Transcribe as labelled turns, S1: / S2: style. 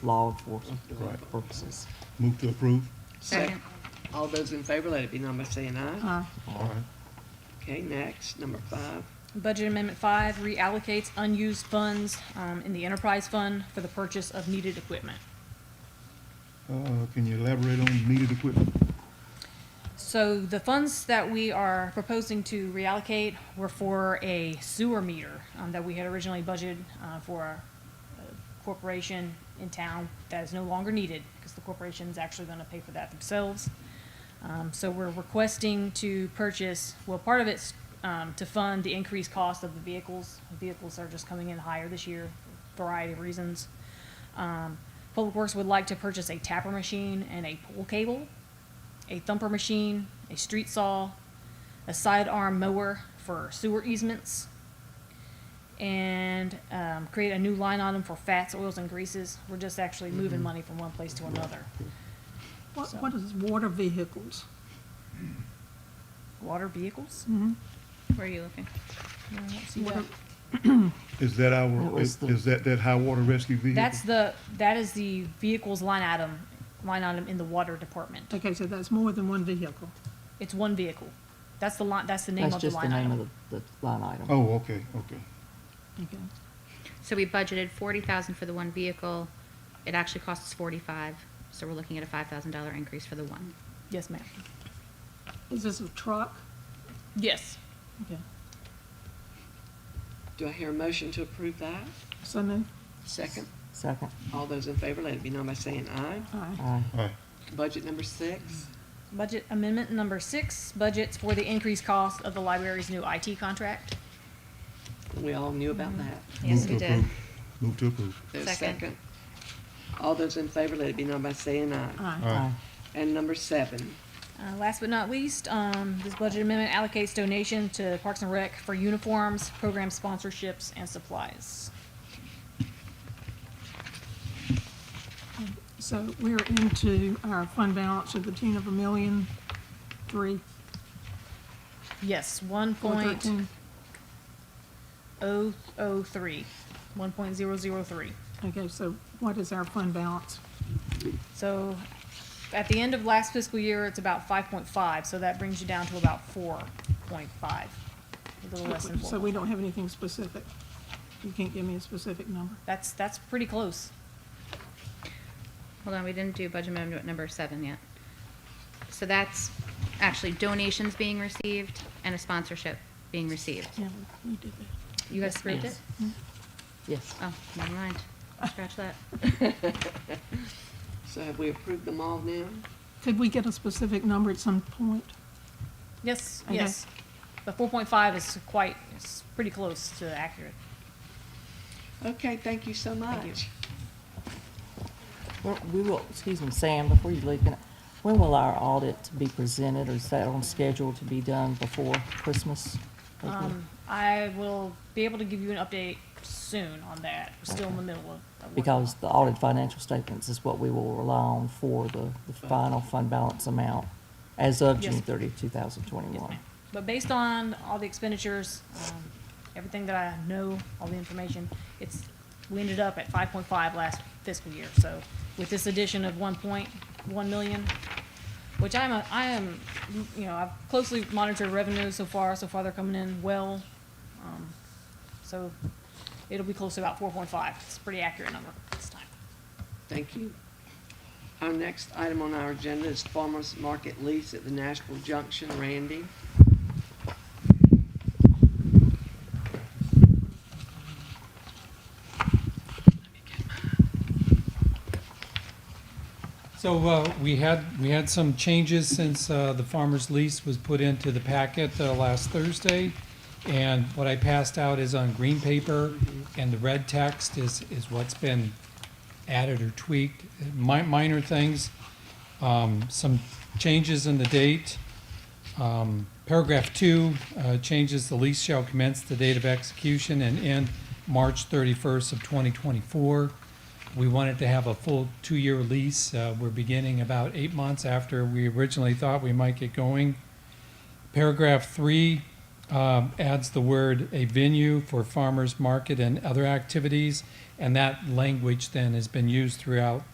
S1: law enforcement
S2: Right.
S1: purposes.
S2: Move to approve.
S3: Second.
S4: All those in favor, let it be known by saying aye.
S3: Uh,
S2: All right.
S4: Okay, next, number five.
S5: Budget Amendment Five reallocates unused funds um, in the enterprise fund for the purchase of needed equipment.
S2: Uh, can you elaborate on needed equipment?
S5: So the funds that we are proposing to reallocate were for a sewer meter um, that we had originally budgeted uh, for a a corporation in town that is no longer needed because the corporation's actually going to pay for that themselves. Um, So we're requesting to purchase, well, part of it's um, to fund the increased cost of the vehicles. Vehicles are just coming in higher this year, variety of reasons. Um, Public Works would like to purchase a tapper machine and a pull cable a thumper machine, a street saw, a sidearm mower for sewer easements, and um, create a new line item for fats, oils, and greases. We're just actually
S1: Mm-hmm.
S5: moving money from one place to another.
S3: What,
S5: So-
S3: what is water vehicles?
S5: Water vehicles?
S1: Mm-hmm.
S6: Where are you looking?
S5: No, I don't see
S3: Water-
S5: that.
S2: Is that
S1: That
S2: our,
S1: was
S2: is
S1: the-
S2: is that that high water rescue vehicle?
S5: That's the, that is the vehicles line item, line item in the water department.
S3: Okay, so that's more than one vehicle.
S5: It's one vehicle. That's the line, that's the name
S1: That's
S5: of the
S1: just the
S5: line
S1: name
S5: item.
S1: of the, the line item.
S2: Oh, okay, okay.
S3: Okay.
S6: So we budgeted forty thousand for the one vehicle. It actually costs us forty-five, so we're looking at a five thousand dollar increase for the one.
S5: Yes, ma'am.
S3: Is this a truck?
S5: Yes.
S3: Okay.
S4: Do I hear a motion to approve that?
S3: So moved.
S4: Second.
S1: Second,
S4: All those in favor, let it be known by saying aye.
S3: Aye.
S1: aye.
S2: All right.
S4: Budget number six.
S5: Budget amendment number six, budgets for the increased cost of the library's new IT contract.
S4: We all knew about that.
S6: Yes,
S2: Move
S6: we
S2: to
S6: did.
S2: approve. Move to approve.
S4: There's a
S6: Second.
S4: Mm-hmm. second. All those in favor, let it be known by saying aye.
S2: All
S3: Aye.
S2: right.
S1: Aye.
S4: And number seven.
S5: Uh, last but not least, um, this budget amendment allocates donation to Parks and Rec for uniforms, program sponsorships, and supplies.
S3: So we're into our fund balance of the tune of a million, three,
S5: Yes, one
S3: four
S5: point
S3: thirteen.
S5: oh oh three, one point zero zero three.
S3: Okay, so what is our fund balance?
S5: So at the end of last fiscal year, it's about five point five, so that brings you down to about four point five, a little less than
S3: So we
S5: four.
S3: don't have anything specific. You can't give me a specific number.
S5: That's, that's pretty close.
S6: Hold on, we didn't do budget amendment number seven yet. So that's actually donations being received and a sponsorship being received.
S3: Yeah, we- we did that.
S6: You guys
S5: Yes,
S6: approved
S5: ma'am.
S6: it?
S1: Yes.
S6: Oh, never mind. Scratch that.
S4: So have we approved them all now?
S3: Could we get a specific number at some point?
S5: Yes,
S3: Okay.
S5: yes. The four point five is quite, it's pretty close to accurate.
S4: Okay, thank you so
S5: Thank you.
S4: much.
S1: Well, We will, excuse me, Sam, before you leave, can I- when will our audit be presented, or is that on schedule to be done before Christmas?
S5: Um, I will be able to give you an update soon on that. We're still in the middle of. of working on
S1: Because the audit financial statements is what we will rely on for the, the final fund balance amount as of
S5: Yes.
S1: June 30,
S5: it. Yes,
S1: 2021.
S5: ma'am. But based on all the expenditures, um, everything that I know, all the information, it's, we ended up at five point five last fiscal year. So with this addition of one point one million, which I'm, a- I am, you know, I've closely monitored revenue so far. So far, they're coming in well. Um, So it'll be close to about four point five. It's a pretty accurate number this time.
S4: Thank you. Our next item on our agenda is farmer's market lease at the Nashville Junction. Randy?
S7: So uh, we had, we had some changes since uh, the farmer's lease was put into the packet uh, last Thursday. And what I passed out is on green paper, and the red text is, is what's been added or tweaked, mi- minor things. Um, Some changes in the date. Um, Paragraph two uh, changes the lease shall commence the date of execution and end March 31st of 2024. We wanted to have a full two-year lease. Uh, We're beginning about eight months after we originally thought we might get going. Paragraph three um, adds the word a venue for farmers market and other activities, and that language then has been used throughout